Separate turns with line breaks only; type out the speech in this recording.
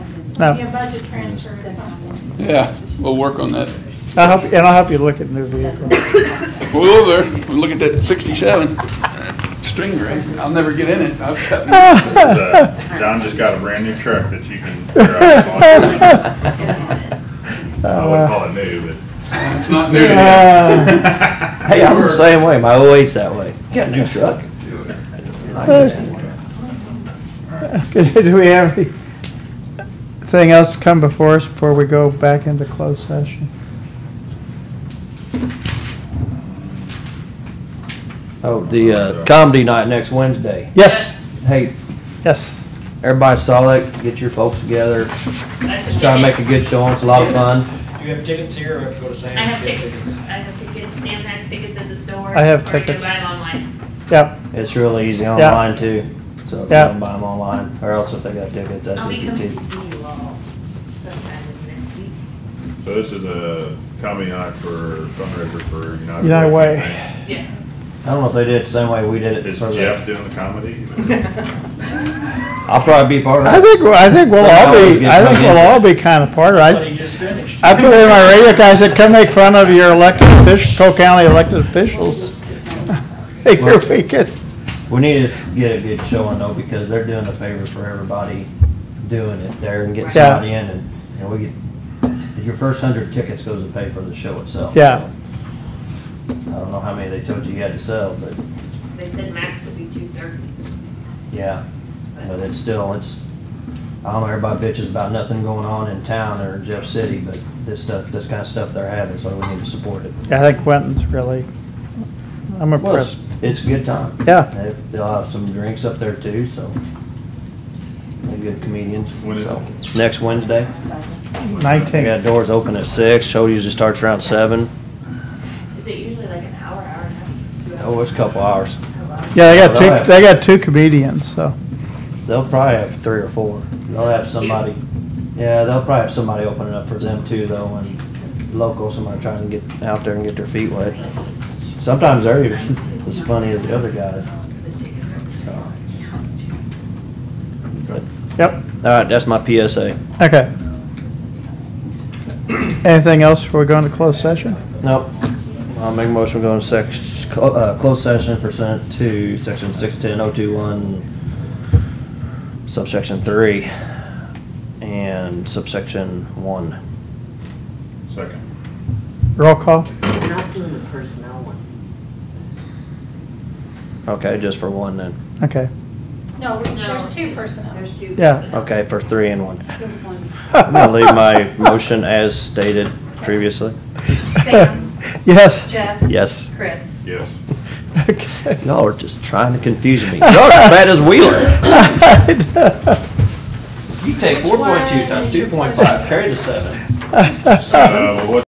No.
Be a budget transfer or something.
Yeah, we'll work on that.
I'll help, you- and I'll help you look at new vehicles.
We'll go there, we'll look at that sixty-seven string race. I'll never get in it. I've cut me-
There's a- uh, John just got a brand new truck that you can drive. I wouldn't call it new,
It's not new.
Uh,
but.
Hey, I'm the same way. My 08's that way. Got a new truck.
Uh, Do we have anything else come before us before we go back into closed session?
Oh, the uh, comedy night next Wednesday.
Yes,
Hey,
yes.
everybody saw that. Get your folks together. Just try to make a good show. It's a lot of fun.
Do you have tickets here or have to go to Sam's?
I have
to get
tickets, I have tickets, Sam has tickets at the store.
I have
or can
tickets.
buy them online.
Yep,
It's really easy online too. So if you
Yeah.
don't buy them online, or else if they got tickets,
I'll
that's
be
easy
coming
too.
to see you all sometime next week.
So this is a comedy night for fundraiser for United.
United Way.
right?
Yes,
I don't know if they did it the same way we did it.
Is
for the-
Jeff doing the comedy?
I'll probably be part of
I
it.
think, I think we'll all be, I think we'll all be kind of part of
But
it.
he just finished.
I I put it in my radio, guy I said, come make fun of your elected officials, Cole County elected officials. Figure we could,
We need to s- get a good showing though, because they're doing a favor for everybody doing it there and get
Right.
Yeah.
somebody in and, and we get, your first hundred tickets goes to pay for the show itself.
Yeah.
so. I don't know how many they told you you had to sell, but
they said max would be two thirty.
yeah, but it's still, it's, I don't know, everybody bitches about nothing going on in town or Jeff City, but this stuff, this kind of stuff they're having, so we need to support it.
Yeah, I think Quentin's really, I'm
Well, it's,
impressed.
it's a good time.
Yeah.
They- They'll have some drinks up there too, so. They're good comedians,
When is
so. Next Wednesday. We got
Nineteen,
doors open at six, show usually starts around seven.
Is it usually like an hour, hour and a half? two
Oh, it's a couple hours.
hours?
yeah, they got
Alright.
two, they got two comedians, so,
They'll probably have three or four. They'll have somebody, yeah, they'll probably have somebody opening up for them too though, and local, somebody trying to get out there and get their feet wet. Sometimes they're even as funny as the other guys, so. But
yep,
All right, that's my PSA.
okay. Anything else before we go into closed session?
Nope. I'll make a motion, we go into sec, clo- uh, closed session pursuant to section six ten oh two one, subsection three, and subsection one.
Second.
Roll call?
Not doing the personnel one.
Okay, just for one then.
Okay.
No,
No.
Oh, there's two personnel.
There's two.
Yeah.
personnel.
Okay, for three and one. I'm gonna leave my motion as stated previously.
Sam.
Yes.
Jeff?
Yes.
Chris?
Yes.
Okay.
Y'all are just trying to confuse me. Y'all are as bad as Wheeler. You take
Which one is your-
carry the seven.
Uh, what